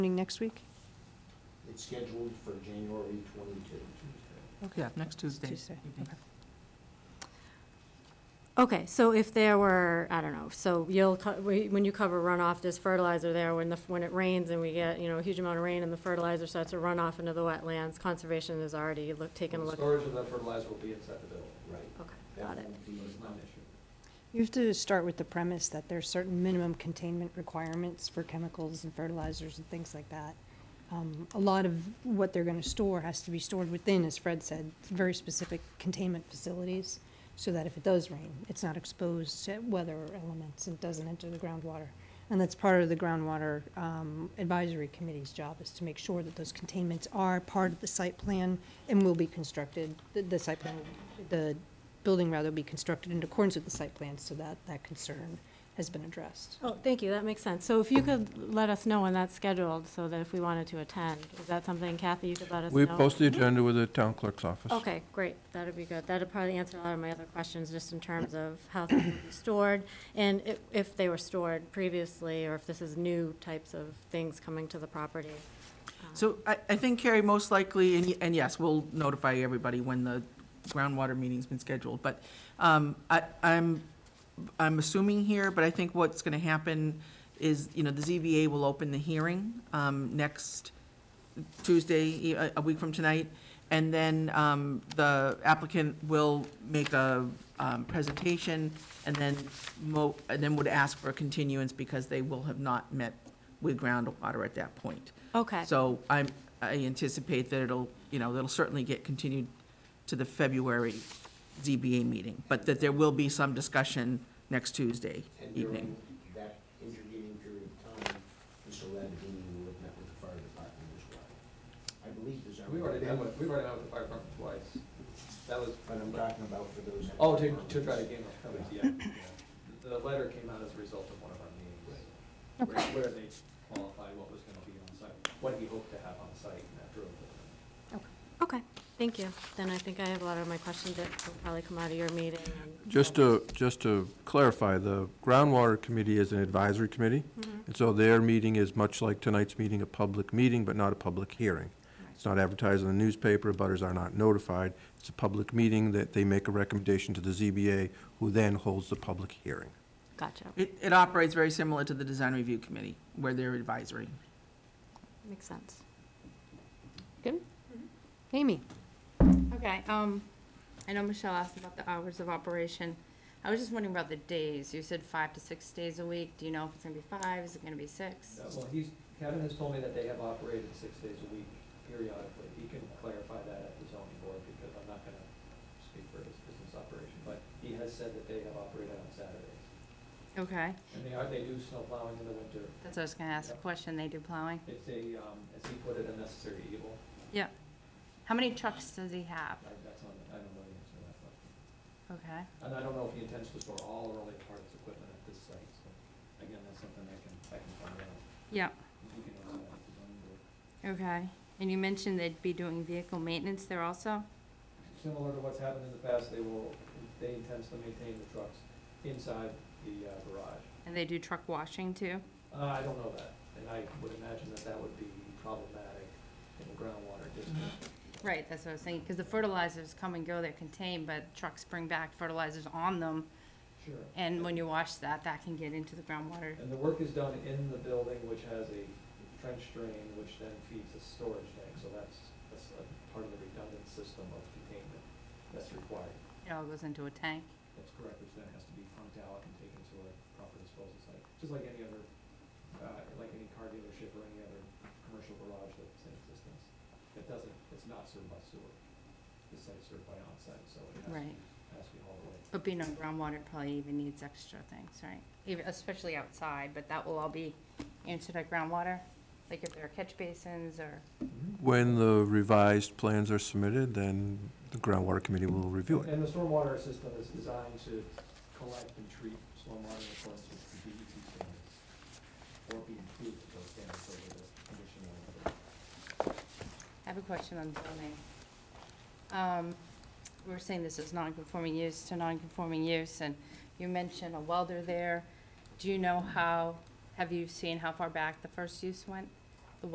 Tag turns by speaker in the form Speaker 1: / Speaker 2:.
Speaker 1: Meeting next week?
Speaker 2: It's scheduled for January twenty-two.
Speaker 1: Okay.
Speaker 3: Yeah, next Tuesday.
Speaker 1: Tuesday,
Speaker 3: evening.
Speaker 1: okay.
Speaker 4: Okay, so if there were, I don't know, so you'll, co- we- when you cover runoff, there's fertilizer there, when the, when it rains and we get, you know, a huge amount of rain and the fertilizer starts to run off into the wetlands, conservation has already looked, taken a look.
Speaker 5: Storage of that fertilizer will be inside the building.
Speaker 2: Right.
Speaker 4: Okay,
Speaker 2: That
Speaker 4: got it.
Speaker 2: will be-
Speaker 5: It's not an issue.
Speaker 1: You have to start with the premise that there's certain minimum containment requirements for chemicals and fertilizers and things like that. Um, A lot of what they're gonna store has to be stored within, as Fred said, very specific containment facilities, so that if it does rain, it's not exposed to weather elements and doesn't enter the groundwater. And that's part of the groundwater um, advisory committee's job, is to make sure that those containments are part of the site plan and will be constructed, the- the site plan, the building rather be constructed in accordance with the site plan so that that concern has been addressed.
Speaker 4: Oh, thank you, that makes sense. So if you could let us know when that's scheduled, so that if we wanted to attend, is that something Kathy, you could let us know?
Speaker 6: We post the agenda with the town clerk's office.
Speaker 4: Okay, great, that'd be good. That'd probably answer a lot of my other questions, just in terms of how things would be stored, and if, if they were stored previously, or if this is new types of things coming to the property. Um,
Speaker 3: So I, I think Carrie, most likely, and, y- and yes, we'll notify everybody when the groundwater meeting's been scheduled, but, um, I, I'm, I'm assuming here, but I think what's gonna happen is, you know, the ZBA will open the hearing, um, next Tuesday, e, a, a week from tonight, and then, um, the applicant will make a, um, presentation, and then mo, and then would ask for a continuance because they will have not met with groundwater at that point.
Speaker 4: Okay,
Speaker 3: So I'm, I anticipate that it'll, you know, that'll certainly get continued to the February ZBA meeting, but that there will be some discussion next Tuesday
Speaker 2: And during
Speaker 3: evening.
Speaker 2: that intervening period of time, Mr. Ladadini will have met with the fire department as well. I believe there's.
Speaker 5: We already had, one- we already had the fire department twice. That was,
Speaker 2: But I'm talking about for those.
Speaker 5: oh, to, to try to gain our coverage, yeah. yeah. The letter came out as a result of one of our meetings. Where, where they qualified what was gonna be on site, what we hoped to have on site, and that drove it.
Speaker 4: okay, thank you. Then I think I have a lot of my questions that will probably come out of your meeting. and-
Speaker 6: Just to, just to clarify, the groundwater committee is an advisory committee,
Speaker 4: Mhm.
Speaker 6: and so their meeting is much like tonight's meeting, a public meeting, but not a public hearing. It's not advertised in the newspaper, butters are not notified. It's a public meeting that they make a recommendation to the ZBA, who then holds the public hearing.
Speaker 4: Gotcha,
Speaker 3: It, it operates very similar to the design review committee, where they're advisory.
Speaker 4: makes sense.
Speaker 1: Amy?
Speaker 7: Okay, um, I know Michelle asked about the hours of operation. I was just wondering about the days. You said five to six days a week. Do you know if it's gonna be five? Is it gonna be six?
Speaker 5: Uh, Well, he's, Kevin has told me that they have operated six days a week periodically. He can clarify that at the zoning board because I'm not gonna speak for his business operation. But he has said that they have operated on Saturdays.
Speaker 7: Okay,
Speaker 5: And they are, they do snow plowing in the winter.
Speaker 7: that's what I was gonna ask a question. They do plowing?
Speaker 5: It's a, um, as he put it, a necessary evil.
Speaker 7: Yeah. How many trucks does he have?
Speaker 5: I, that's on, I don't know the answer to that question.
Speaker 7: Okay,
Speaker 5: And I don't know if he intends to store all or only part of his equipment at this site, so again, that's something I can, I can find out.
Speaker 7: yeah,
Speaker 5: He can answer that at the zoning board.
Speaker 7: okay. And you mentioned they'd be doing vehicle maintenance there also?
Speaker 5: Similar to what's happened in the past, they will, they intends to maintain the trucks inside the uh, garage.
Speaker 7: And they do truck washing too?
Speaker 5: Uh, I don't know that, and I would imagine that that would be problematic in the groundwater district.
Speaker 7: Right, that's what I was thinking, because the fertilizers come and go, they're contained, but trucks bring back fertilizers on them.
Speaker 5: Sure.
Speaker 7: And when you wash that, that can get into the groundwater.
Speaker 5: And the work is done in the building, which has a trench drain, which then feeds a storage tank, so that's, that's a part of the redundant system of containment that's required.
Speaker 7: It all goes into a tank.
Speaker 5: That's correct, which then has to be pumped out and taken to a proper disposal site, just like any other, uh, like any car dealership or any other commercial garage that's in existence. It doesn't, it's not served by sewer, it's like served by onsite, so it has,
Speaker 7: Right.
Speaker 5: to- has to be hauled away.
Speaker 7: But being on groundwater it probably even needs extra things, right? Even, especially outside, but that will all be answered at groundwater? Like if there are catch basins or,
Speaker 6: When the revised plans are submitted, then the groundwater committee will review it.
Speaker 5: And the stormwater system is designed to collect and treat stormwater in accordance with the DEP E standards, or be improved with those standards over the conditional.
Speaker 7: I have a question on zoning. Um, we were saying this is non-conforming use to non-conforming use, and you mentioned a welder there. Do you know how, have you seen how far back the first use went?